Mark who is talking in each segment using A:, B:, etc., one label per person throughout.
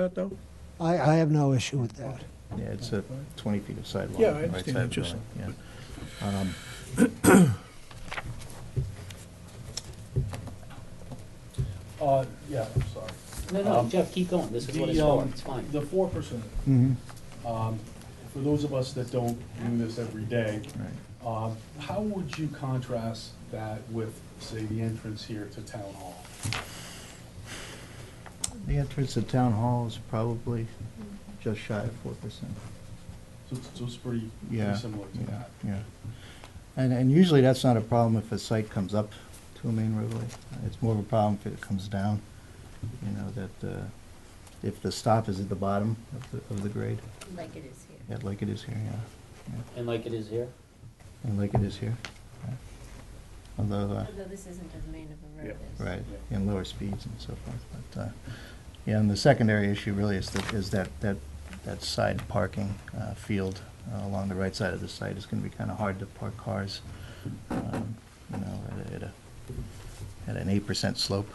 A: that, though?
B: I, I have no issue with that.
C: Yeah, it's a 20 feet of sidewalk.
A: Yeah, I
C: on the right
A: understand,
C: side of the
A: just-
C: building, yeah. Um,
D: Uh, yeah, I'm sorry.
E: No, no,
D: Um,
E: Jeff, keep going, this is what it's
D: The,
E: for,
D: um,
E: it's fine.
D: The four percent,
C: Mm-hmm.
D: um, for those of us that don't do this every day,
C: Right.
D: um, how would you contrast that with, say, the entrance here to town hall?
C: The entrance to Town Hall is probably just shy of 4%.
D: So it's, so it's pretty,
C: Yeah.
D: pretty similar
C: yeah,
D: to that.
C: Yeah. And, and usually that's not a problem if a site comes up to a main roadway. It's more of a problem if it comes down, you know, that, uh, if the stop is at the bottom of the, of the grade,
F: like it is here.
C: yeah, like it is here, yeah. yeah.
E: And like it is here?
C: And like it is here. yeah. Although, uh,
F: Although this isn't as main of a road as.
C: Right, and lower speeds and so forth, but, uh, yeah, and the secondary issue really is that, is that, that, that side parking, uh, field uh, along the right side of the site is gonna be kinda hard to park cars, um, you know, at a, at a, at an eight percent slope,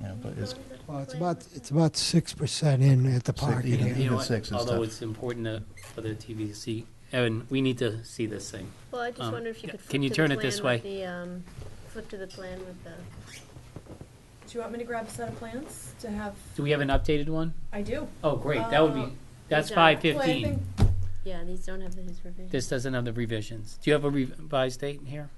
C: you know, but it's,
B: Well, it's about, it's about six percent in at the
C: Six,
B: parking
C: yeah.
B: area.
C: You
E: You
C: know
E: know
C: what? six is
E: Although
C: tough.
E: it's important to- for the TVC, Evan, we need to see this thing.
F: Well, I just
E: Um,
F: wonder if you
E: yeah,
F: could. flip
E: can you
F: to the
E: turn it
F: plan
E: this
F: with
E: way?
F: The, um, flip to the plan with the.
G: Do you want me to grab a set of plans to have?
E: Do we have an updated one?
G: I do.
E: Oh, great, that would be,
G: Um,
E: that's
F: yeah.
E: five
G: Well, I think-
E: fifteen.
F: Yeah, these don't have his revision.
E: This doesn't have the revisions. Do you have a revised date in here?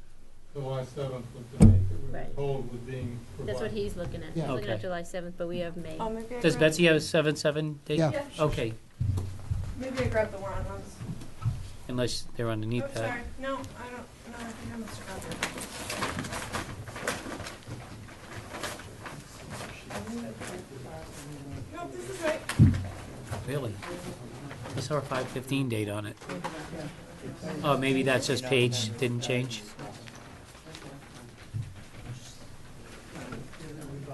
H: July seventh was the date that we were
F: Right.
H: told was Oh, being provided.
F: That's what he's looking at. He's
B: Yeah.
F: looking at
E: Okay.
F: July seventh, but we have May.
G: Oh, maybe I
E: Does
G: grabbed-
E: Betsy have Oh. a seven, seven date?
B: Yeah.
G: Yeah, sure.
E: Okay,
G: Maybe I grabbed the warrant ones.
E: unless they're
G: Oh,
E: underneath that.
G: sorry. No, I don't, no, I think I must have grabbed it. Nope, this is right.
E: Really? I saw a five fifteen date on it. Oh, maybe that's just page didn't change?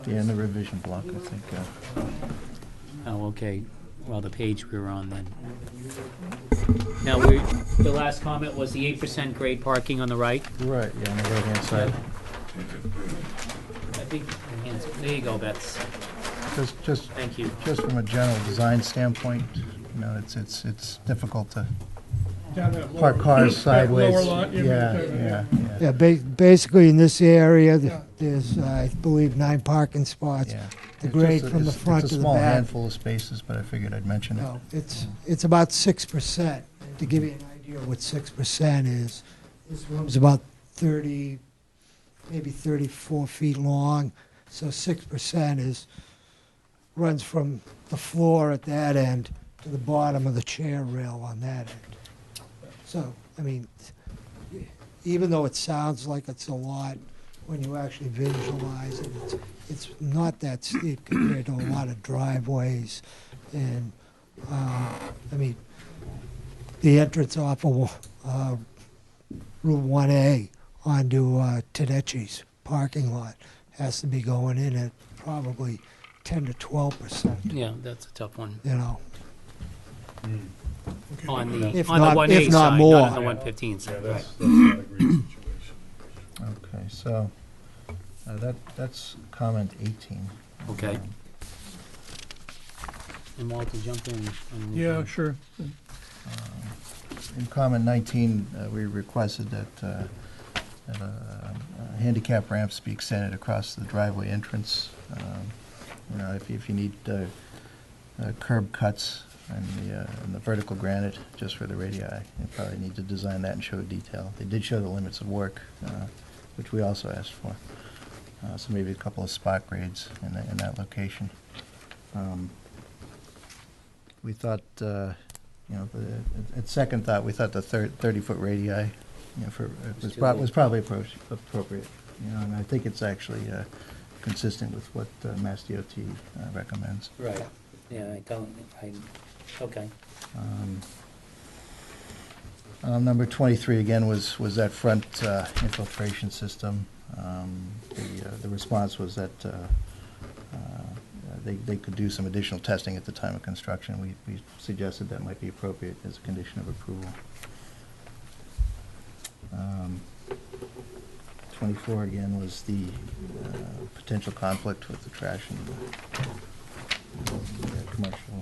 C: yeah, in the revision block, I think, uh,
E: Oh, okay. Well, the page we were on then. Now, we, the last comment was the eight percent grade parking on the right.
C: right, yeah, on the right-hand side.
E: I think, there you go, Bets.
C: Just, just
E: Thank you.
C: just from a general design standpoint, you know, it's, it's, it's difficult to
A: Down that
C: park
A: lower-
C: cars
A: that lower
C: sideways.
A: lot, you mean,
C: Yeah,
A: uh,
C: yeah, yeah,
B: Yeah, ba- basically in this area, th- there's, I believe, nine parking spots.
C: yeah.
B: The
C: It's
B: grade
C: just a-
B: from the
C: it's-
B: front to
C: It's a
B: the
C: small
B: back.
C: handful of spaces, but I figured I'd mention it.
B: No, it's, it's about six percent. To give you an idea of what six percent is, this room's about thirty, maybe thirty-four feet long. So six percent is, runs from the floor at that end to the bottom of the chair rail on that end. So, I mean, even though it sounds like it's a lot, when you actually visualize it, it's, it's not that steep compared to a lot of driveways and uh, I mean, the entrance off of uh, Route 1A onto uh, Tedeschi's parking lot has to be going in at probably 10 to 12 percent,
E: Yeah, that's a tough one.
B: you know.
E: On the,
B: If
E: on the
B: not-
E: one
B: if
E: A
B: not
E: side,
B: more.
E: not on the one fifteen
D: Yeah,
E: side, right.
D: that's, that's not a great situation.
C: Okay, so, uh, that, that's comment eighteen.
E: Okay. And Walter, jump in. on the-
A: Yeah, sure.
C: In comment 19, uh, we requested that, uh, that a a handicap ramps be extended across the driveway entrance. Um, You know, if, if you need uh, uh, curb cuts and the, uh, and the vertical granite just for the radii, you probably need to design that and show detail. They did show the limits of work, uh, which we also asked for. Uh, So maybe a couple of spot grades in that, in that location. Um, We thought, uh, you know, the- at second thought, we thought the thirty-foot radii, you know, for,
E: Was
C: was
E: too
C: prob-
E: big.
C: was probably appro- appropriate. You know, and I think it's actually uh, consistent with what uh, Mass DOT uh, recommends.
E: Right, yeah, I don't, I, okay.
C: Um, uh, Number 23, again, was, was that front uh, infiltration system. Um, The, uh, the response was that uh, uh, they, they could do some additional testing at the time of construction. We, we suggested that might be appropriate as a condition of approval. Um, 24, again, was the uh, potential conflict with the trash and uh, uh, commercial.